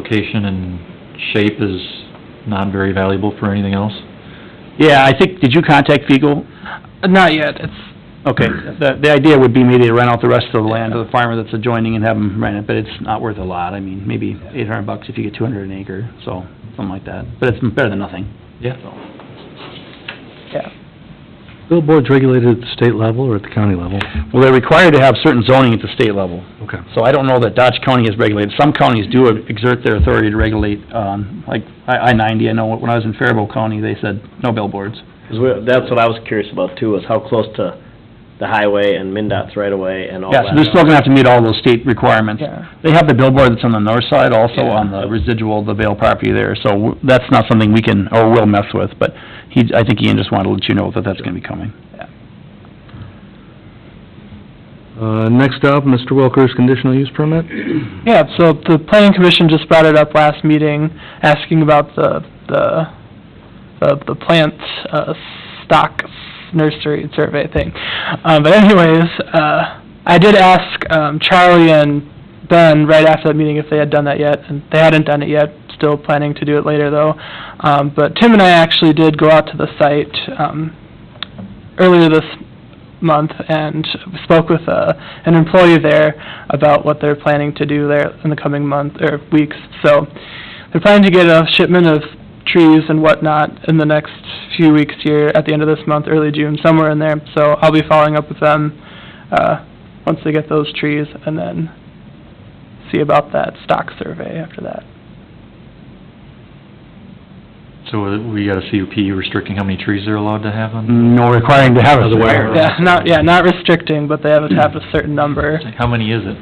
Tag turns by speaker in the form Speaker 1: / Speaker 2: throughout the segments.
Speaker 1: location and shape is not very valuable for anything else?
Speaker 2: Yeah, I think, did you contact Fiegel?
Speaker 3: Uh, Not yet, it's,
Speaker 2: Okay, the, the idea would be maybe to rent out the rest of the land to the farmer that's adjoining and have him rent it, but it's not worth a lot. I mean, maybe eight hundred bucks if you get two hundred an acre, so, something like that. But it's better than nothing.
Speaker 1: Yeah.
Speaker 4: Billboards regulated at the state level or at the county level?
Speaker 2: Well, they're required to have certain zoning at the state level,
Speaker 4: Okay.
Speaker 2: so I don't know that Dodge County is regulated. Some counties do exert their authority to regulate, um, like I, I ninety, I know when I was in Faribault County, they said no billboards.
Speaker 5: 'Cause we- that's what I was curious about too, is how close to the highway and MinDOT's right away and all
Speaker 2: Yeah,
Speaker 5: that.
Speaker 2: so they're still gonna have to meet all those state requirements.
Speaker 3: yeah.
Speaker 2: They have the billboard that's on the north side, also on the residual, the Vale property there, so w- that's not something we can, or will mess with, but he, I think Ian just wanted to let you know that that's gonna be coming.
Speaker 4: Uh, next up, Mr. Wilker's conditional use permit?
Speaker 3: Yeah, so the planning commission just brought it up last meeting, asking about the, the, the the plant, uh, stock nursery survey thing. Um, but anyways, uh, I did ask, um, Charlie and Ben right after that meeting if they had done that yet, and they hadn't done it yet, still planning to do it later though. Um, but Tim and I actually did go out to the site, um, earlier this month and spoke with, uh, an employee there about what they're planning to do there in the coming month, or weeks. So, they're planning to get a shipment of trees and whatnot in the next few weeks here, at the end of this month, early June, somewhere in there. So I'll be following up with them, uh, once they get those trees, and then see about that stock survey after that.
Speaker 1: So uh, we got a CUP restricting how many trees they're allowed to have on?
Speaker 2: No requiring to have a
Speaker 1: Otherwise-
Speaker 2: square.
Speaker 3: Yeah, not, yeah, not restricting, but they have to have a certain number.
Speaker 4: Mm.
Speaker 1: How many is it?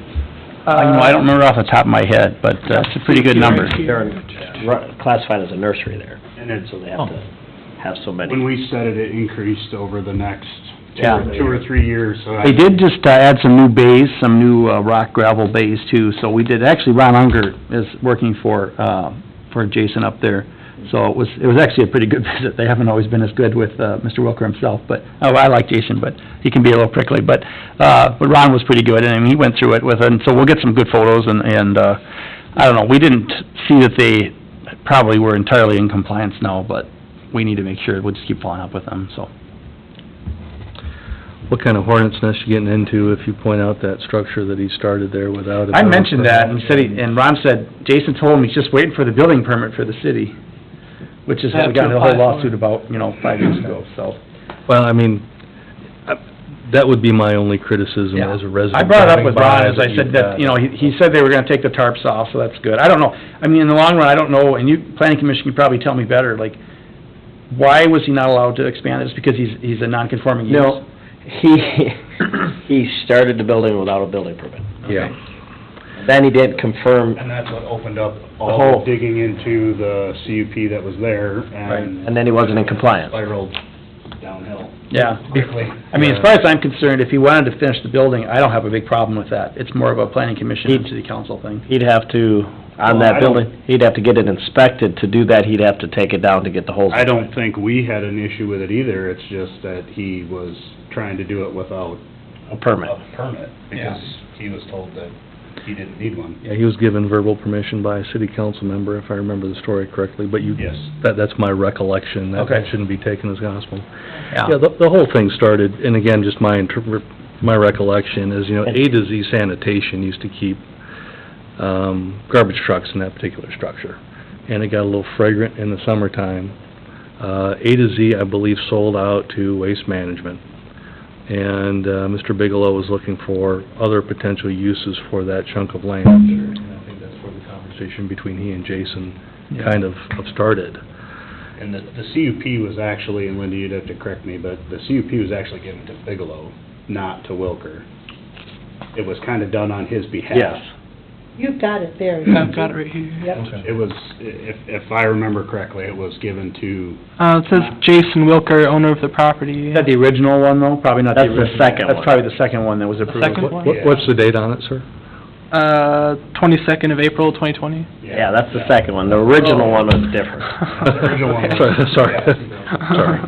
Speaker 2: I don't know, I don't remember off the top of my head, but uh, it's a pretty good number.
Speaker 5: They're ru- classified as a nursery there,
Speaker 6: And it's,
Speaker 5: so they have to have so
Speaker 6: when
Speaker 5: many.
Speaker 6: we set it, it increased over the next two
Speaker 2: Yeah.
Speaker 6: or- two or three years, so. I-
Speaker 2: They did just uh, add some new bays, some new uh, rock gravel bays too, so we did, actually Ron Unger is working for, uh, for Jason up there. So it was, it was actually a pretty good visit, they haven't always been as good with, uh, Mr. Wilker himself, but, oh, I like Jason, but he can be a little prickly, but, uh, but Ron was pretty good, and I mean, he went through it with, and so we'll get some good photos and, and, uh, I don't know, we didn't see that they probably were entirely in compliance now, but we need to make sure, we'll just keep following up with them, so.
Speaker 4: What kind of hornet's nest you getting into if you point out that structure that he started there without a...
Speaker 2: I
Speaker 4: building
Speaker 2: mentioned that, and
Speaker 4: permit?
Speaker 2: said, he- and Ron said, Jason told him he's just waiting for the building permit for the city, which is what we got in the whole lawsuit about, you know, five years ago, so.
Speaker 4: Well, I mean, I- that would be my only criticism
Speaker 2: Yeah.
Speaker 4: as a resident.
Speaker 2: I brought it up with Ron,
Speaker 4: driving
Speaker 2: as
Speaker 4: by
Speaker 2: I said,
Speaker 4: you've
Speaker 2: that,
Speaker 4: got-
Speaker 2: you know, he, he said they were gonna take the tarps off, so that's good. I don't know, I mean, in the long run, I don't know, and you, planning commission can probably tell me better, like, why was he not allowed to expand it? It's because he's, he's a non-conforming use?
Speaker 5: No, he, he started the building without a building permit.
Speaker 4: Yeah.
Speaker 5: Then he didn't confirm,
Speaker 6: And that's what opened up
Speaker 5: The
Speaker 6: all
Speaker 5: whole-
Speaker 6: the digging into the CUP that was there and
Speaker 5: and then he wasn't in compliance.
Speaker 6: spiraled downhill
Speaker 2: Yeah.
Speaker 6: quickly.
Speaker 2: I mean, as far as I'm concerned, if he wanted to finish the building, I don't have a big problem with that. It's more of a planning commission and
Speaker 5: He-
Speaker 2: city council thing.
Speaker 5: He'd have to, on
Speaker 6: Well,
Speaker 5: that
Speaker 6: I don't-
Speaker 5: building, he'd have to get it inspected. To do that, he'd have to take it down to get the whole.
Speaker 6: I don't think we had an issue with it either, it's just that he was trying to do it without
Speaker 5: A permit.
Speaker 6: a permit, because he was told that he didn't need one.
Speaker 4: Yeah, he was given verbal permission by a city council member, if I remember the story correctly, but you...
Speaker 6: Yes.
Speaker 4: That, that's my recollection. That-
Speaker 2: Okay.
Speaker 4: That shouldn't be taken as gospel. Yeah, the, the whole thing started, and again, just my interpret, my recollection is, you know, A to Z sanitation used to keep, um, garbage trucks in that particular structure. And it got a little fragrant in the summertime. Uh, A to Z, I believe, sold out to Waste Management. And, uh, Mr. Bigelow was looking for other potential uses for that chunk of land. And I think that's where the conversation between he and Jason kind of started.
Speaker 6: And the, the CUP was actually, and Linda, you'd have to correct me, but the CUP was actually given to Bigelow, not to Wilker. It was kind of done on his behalf.
Speaker 5: Yes.
Speaker 7: You've got it there.
Speaker 3: I've got it right here.
Speaker 7: Yep.
Speaker 6: It was, if, if I remember correctly, it was given to,
Speaker 3: Uh, it says Jason Wilker, owner of the property.
Speaker 2: Is that the original one, though? Probably not the
Speaker 5: That's the
Speaker 2: original.
Speaker 5: second
Speaker 2: That's
Speaker 5: one.
Speaker 2: probably the second one that was approved.
Speaker 3: second one?
Speaker 4: What- What's the date on it, sir?
Speaker 3: Uh, twenty-second of April, twenty twenty.
Speaker 5: Yeah, that's the second one. The original one was different.
Speaker 6: original one.
Speaker 4: Sorry, sorry. Sorry.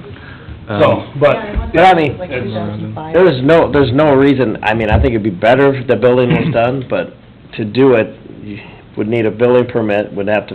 Speaker 6: So,
Speaker 4: Um,
Speaker 6: but,
Speaker 7: Yeah, I want
Speaker 5: but I
Speaker 7: that,
Speaker 5: mean,
Speaker 7: like
Speaker 6: it's-
Speaker 7: 2005.
Speaker 5: There's no, there's no reason, I mean, I think it'd be better if the building was done, but to do it, you- would need a building permit, would have to